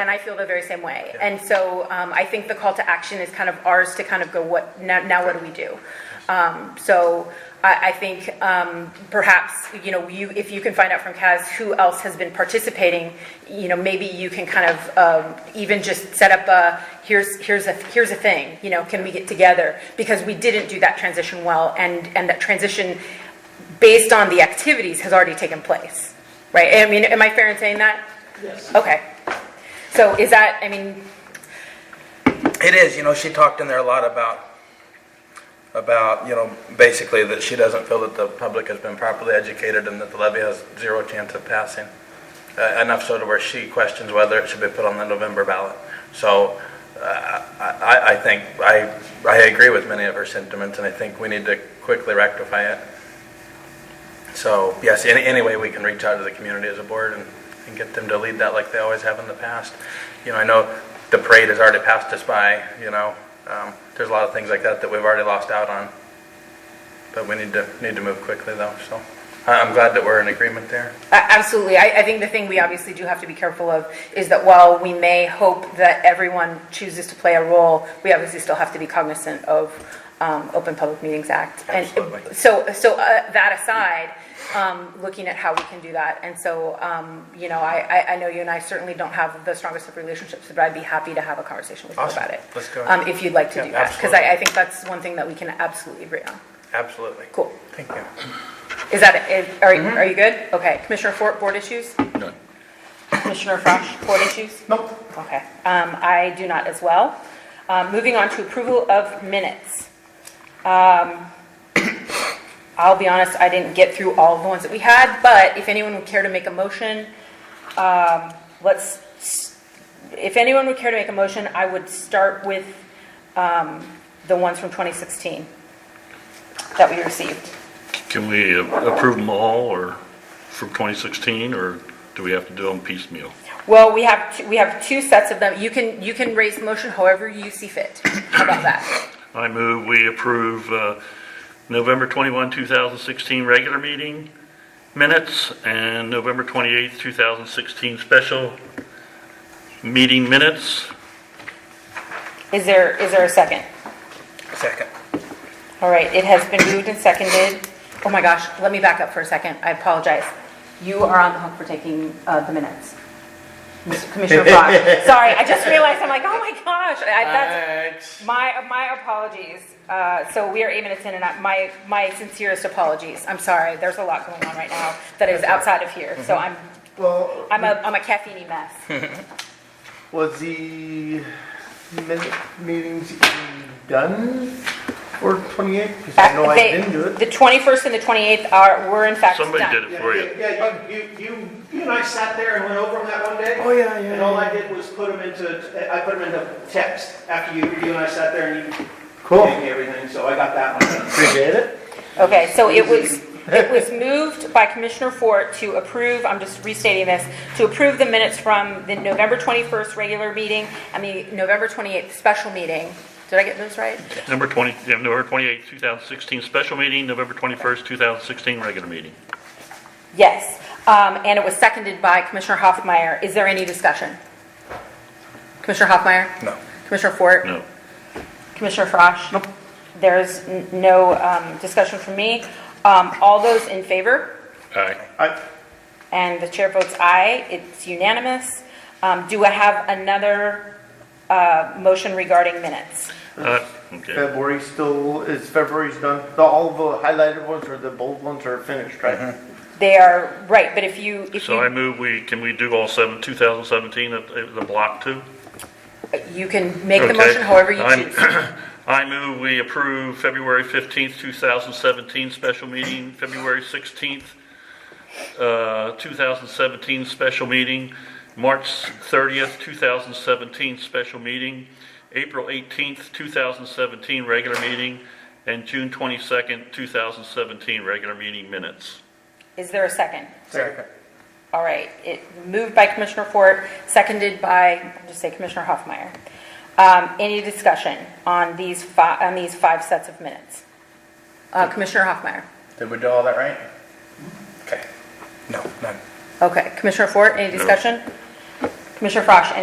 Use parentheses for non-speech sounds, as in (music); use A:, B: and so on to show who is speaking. A: And I feel the very same way. And so um, I think the call to action is kind of ours to kind of go, what, now, now what do we do? Um, So I, I think um, perhaps, you know, you, if you can find out from Kaz who else has been participating, you know, maybe you can kind of um, even just set up a, here's, here's a, here's a thing, you know, can we get together? Because we didn't do that transition well, and, and that transition, based on the activities, has already taken place, right? I mean, am I fair in saying that?
B: Yes.
A: Okay. So is that, I mean,
C: It is, you know, she talked in there a lot about, about, you know, basically that she doesn't feel that the public has been properly educated and that the levy has zero chance of passing. Uh, Enough so to where she questions whether it should be put on the November ballot. So uh, I, I- I think, I, I agree with many of her sentiments and I think we need to quickly rectify it. So, yes, any, any way we can reach out to the community as a board and, and get them to lead that like they always have in the past. You know, I know the parade has already passed us by, you know, um, there's a lot of things like that that we've already lost out on. But we need to, need to move quickly though, so I- I'm glad that we're in agreement there.
A: a- absolutely. I, I think the thing we obviously do have to be careful of is that while we may hope that everyone chooses to play a role, we obviously still have to be cognizant of um, Open Public Meetings Act. And
C: Absolutely.
A: So, so uh, that aside, um, looking at how we can do that. And so, um, you know, I, I- I know you and I certainly don't have the strongest of relationships, but I'd be happy to have a conversation with you
C: Awesome.
A: about it.
C: Let's go.
A: um, If you'd like to
C: Yeah,
A: do that. Because
C: absolutely.
A: I, I think that's one thing that we can absolutely agree on.
C: Absolutely.
A: Cool.
C: Thank you.
A: Is that, it? are, are you good? Okay, Commissioner Fort, board issues?
D: None.
A: Commissioner Frosch, board issues? Nope. Okay, um, I do not as well. Um, moving on to approval of minutes. Um, (coughs) I'll be honest, I didn't get through all the ones that we had, but if anyone would care to make a motion, um, let's, s- if anyone would care to make a motion, I would start with, um, the ones from 2016 that we received.
E: Can we approve them all, or from 2016, or do we have to do them piecemeal?
A: Well, we have, two- we have two sets of them. You can, you can raise the motion however you see fit. How about that?
E: I move we approve uh, November 21, 2016 regular meeting minutes and November 28, 2016 special meeting minutes.
A: Is there, is there a second?
C: Second.
A: All right, it has been moved and seconded. Oh my gosh, let me back up for a second. I apologize. You are on the hook for taking uh, the minutes. Mr. Commissioner Brock. Sorry, I just realized, I'm like, oh my gosh, I- that's, My, my apologies. Uh, So we are aiming to ten and I- my, my sincerest apologies. I'm sorry, there's a lot going on right now that is outside of here. So I'm,
B: Well,
A: I'm a, I'm a caffeine mess.
B: was the minute meetings even done for 28? Because I know I
A: They-
B: didn't do it.
A: The 21st and the 28th are, were in fact
E: Somebody
A: done.
E: did it for you.
F: Yeah, you, you, you, you and I sat there and went over them that one day.
B: Oh, yeah, yeah,
F: And all
B: yeah.
F: I did was put them into, I put them into text after you, you and I sat there and you
B: Cool.
F: gave me everything, so I got that one done.
B: Appreciate it.
A: Okay, so it was, it was moved by Commissioner Fort to approve, I'm just restating this, to approve the minutes from the November 21st regular meeting and the November 28th special meeting. Did I get those right?
E: Number 20, yeah, November 28, 2016 special meeting, November 21st, 2016 regular meeting.
A: Yes. Um, And it was seconded by Commissioner Hoffmeyer. Is there any discussion? Commissioner Hoffmeyer?
C: No.
A: Commissioner Fort?
E: No.
A: Commissioner Frosch? Nope. There's n- no um, discussion from me. Um, All those in favor?
E: Aye.
B: I,
A: And the chair votes aye, it's unanimous. Um, Do I have another uh, motion regarding minutes?
E: Uh, Okay.
B: February still is February's done. The, all the highlighted ones or the bold ones are finished,
E: Mm-hmm.
B: right?
A: They are, right, but if you, if
E: So I
A: you,
E: move we, can we do all seven, 2017, at- at the block two?
A: you can make the
E: Okay.
A: motion however you
E: I'm-
A: choose.
E: (clears throat) I move we approve February 15th, 2017 special meeting, February 16th, uh, 2017 special meeting, March 30th, 2017 special meeting, April 18th, 2017 regular meeting, and June 22nd, 2017 regular meeting minutes.
A: Is there a second?
C: Second.
A: All right, it moved by Commissioner Fort, seconded by, I'll just say Commissioner Hoffmeyer. Um, Any discussion on these five, on these five sets of minutes? Uh, Commissioner Hoffmeyer?
C: Did we do all that right? Okay. No, none.
A: Okay, Commissioner Fort, any discussion? Commissioner Frosch, any